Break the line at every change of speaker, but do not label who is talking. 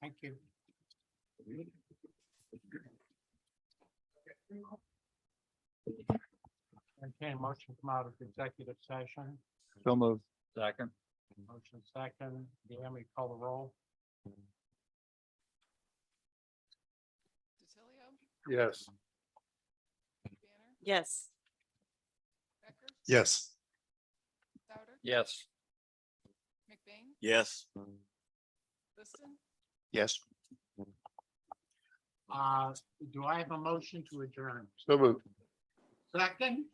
Thank you. Entertain a motion to come out of executive session,
So move. Second.
motion second, Deanne, call the roll.
DiTilio?
Yes.
Banner?
Yes.
Becker?
Yes.
Souter?
Yes.
McBain?
Yes.
Liston?
Yes.
Uh, do I have a motion to adjourn?
So move.
Second?